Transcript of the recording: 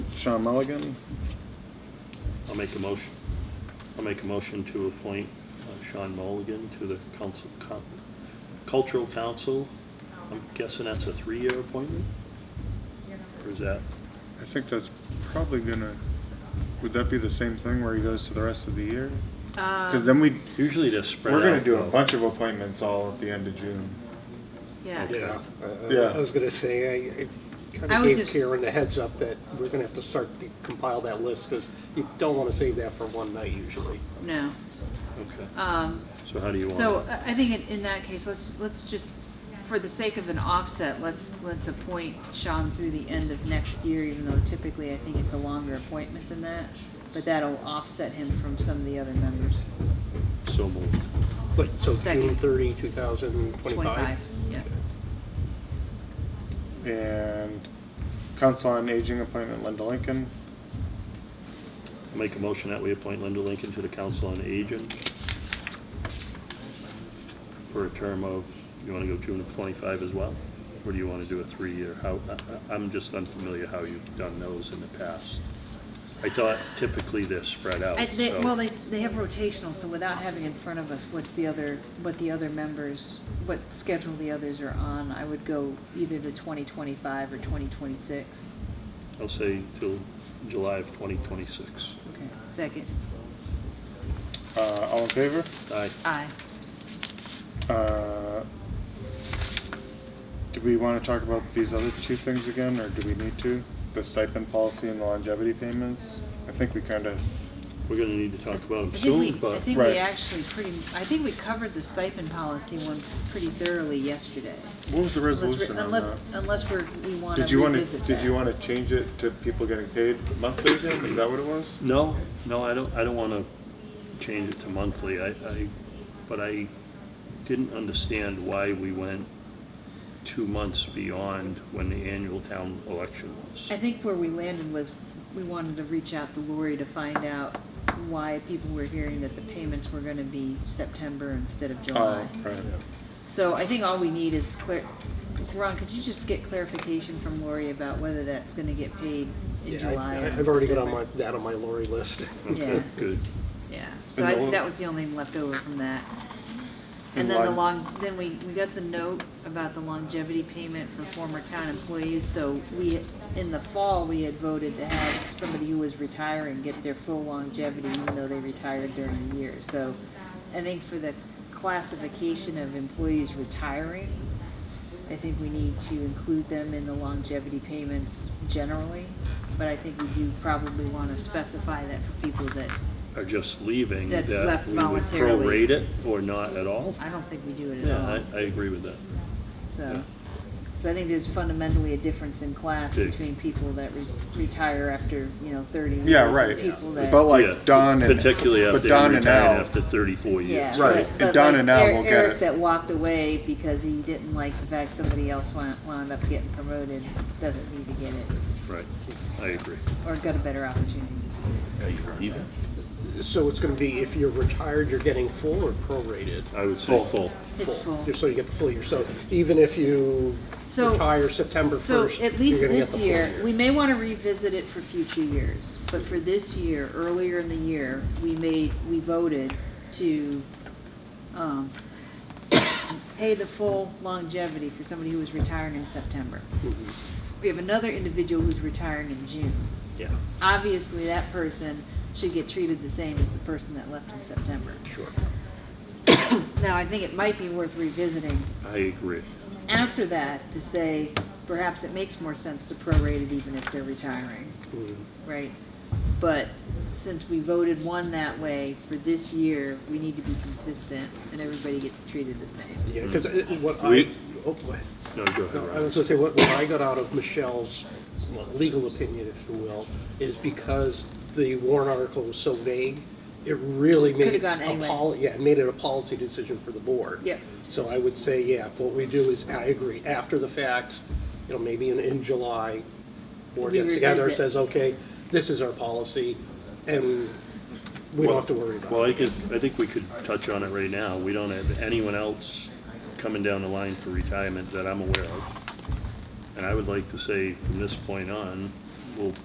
Sean Mulligan. I'll make a motion, I'll make a motion to appoint uh, Sean Mulligan to the council, co- cultural council. I'm guessing that's a three-year appointment, or is that, I think that's probably gonna, would that be the same thing where he goes to the rest of the year? Because then we, usually they're spread out. we're gonna do a though. bunch of appointments all at the end of June. Yeah, Yeah, I- I- Yeah. I was going to say, I- I kind I of would gave just- Karen the heads up that we're going to have to start to compile that list because you don't want to save that for one night usually. no. okay. Um, So how do you want? So it? I I think in, in that case, let's, let's just, for the sake of an offset, let's, let's appoint Sean through the end of next year, even though typically I think it's a longer appointment than that. But that'll offset him from some of the other members. So moved. But so June Second. 30, 2025? Yeah. And Council on Aging appointment Linda Lincoln. I'll Make a motion that we appoint Linda Lincoln to the council on aging for a term of, you wanna go June of twenty-five as well? Or do you wanna do a three-year? How, I- I, I'm just unfamiliar how you've done those in the past. I thought typically they're spread out, I, they, Oh, well, so. they, they have rotational, so without having in front of us what the other, what the other members, what schedule the others are on, I would go either to twenty twenty-five or twenty twenty-six. I'll say till July of twenty twenty-six. Okay, second. Uh, all in favor? Aye. Aye. Uh, Do we want to talk about these other two things again, or do we need to? The stipend policy and the longevity payments? I think we kind of, We're gonna need to talk about I them think we- soon, but. I think Right. we actually pretty, I think we covered the stipend policy one pretty thoroughly yesterday. what was the Unless we're- resolution on that? Unless, unless we're, we want Did to you want to, revisit that. did you want to change it to people getting paid monthly again? Is that what it was? No, no, I don't, I don't wanna change it to monthly, I, I, but I didn't understand why we went two months beyond when the annual town election was. I think where we landed was, we wanted to reach out to Lori to find out why people were hearing that the payments were gonna be September instead of Oh, July. right. So I think all we need is clear, Ron, could you just get clarification from Lori about whether that's gonna get paid in Yeah, July? I- or I've already got on my, September? that on my Lori list. Okay, Yeah. good. Yeah, so And I the think lo- that was the only thing left over from that. And And then the lines- long, then we, we got the note about the longevity payment for former town employees, so we, in the fall, we had voted to have somebody who was retiring get their full longevity even though they retired during the year, so I think for the classification of employees retiring, I think we need to include them in the longevity payments generally, but I think we do probably wanna specify that for people that, Are just leaving That that we left would voluntarily. prorate it or not at all? I don't think we do it at all. Yeah, I, I agree with that. So, so I think there's fundamentally a difference in class Big. between people that re- retire after, you know, thirty years. Yeah, and right. People But that, Yeah, like Don and. Particularly but after you Don and Al- retired after thirty-four yeah. years. Right. but- and but Don like and Al Eric- will get it. Eric that walked away because he didn't like the fact somebody else wound, wound up getting promoted, doesn't need to get it, Right, I agree. or got a better opportunity. Even, So it's going to be, if you're retired, you're getting full or prorated? I would say full. It's full. Just so you get the full year. So even if you So- retire September 1st, So at least you're gonna get this the full year, we may want to revisit it for future years, but for this year, earlier in the year, we made, we voted to, um, pay the full longevity for somebody who was retiring in September. Mm-hmm. We have another individual who's retiring in June. Yeah. Obviously, that person should get treated the same as the person that left in September. Sure. Now, I think it might be worth revisiting I agree. after that to say, perhaps it makes more sense to prorate it even if they're retiring, right? But since we voted one that way for this year, we need to be consistent and everybody gets treated the same. Yeah, because what I, We- oh, go ahead. No, go ahead, No, I Rob. was gonna say, what, what I got out of Michelle's well, legal opinion, if you will, is because the warrant article was so vague, it really made. Could've gone a anyway. pol- Yeah, it made it a policy decision for the board. Yep. So I would say, yeah, what we do is, I agree, after the fact, you know, maybe in, in July, board We gets together, revisit. says, okay, this is our policy, and we don't have to worry Well, about I it. could, I think we could touch on it right now. We don't have anyone else coming down the line for retirement that I'm aware of. And I would like to say, from this point on, we'll